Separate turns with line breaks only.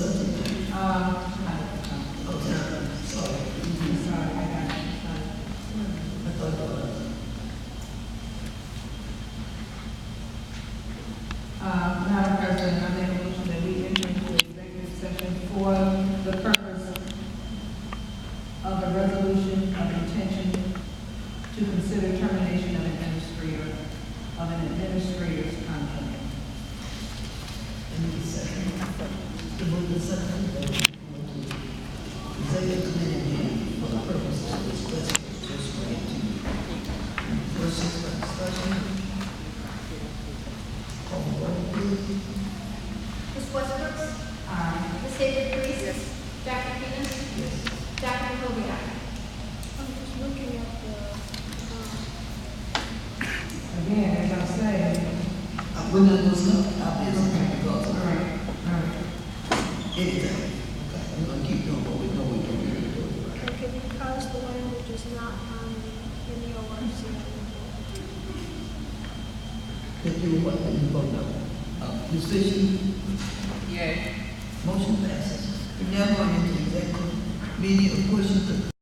Uh, no, no. I'm sorry, I got it. Uh, Madam President, I make a motion that we enter into executive session for the purpose of a resolution of intention to consider termination of administrator, of an administrator's contract.
Ms. Westbrook? Aye. Ms. Xavier Priest? Dr. Keenan? Yes. Dr. Hovia?
I'm just looking at the, um,
Again, as I'm saying,
We're not gonna stop, I'll be okay,
all
because
right, all right.
anything, okay, we're gonna keep doing what we know we do, we do, right?
okay, because the language is not on the, in the ORC.
That you what, that you vote no. Uh, Ms. Fisher,
Yay.
motion passes. We're now going into executive meeting of questions of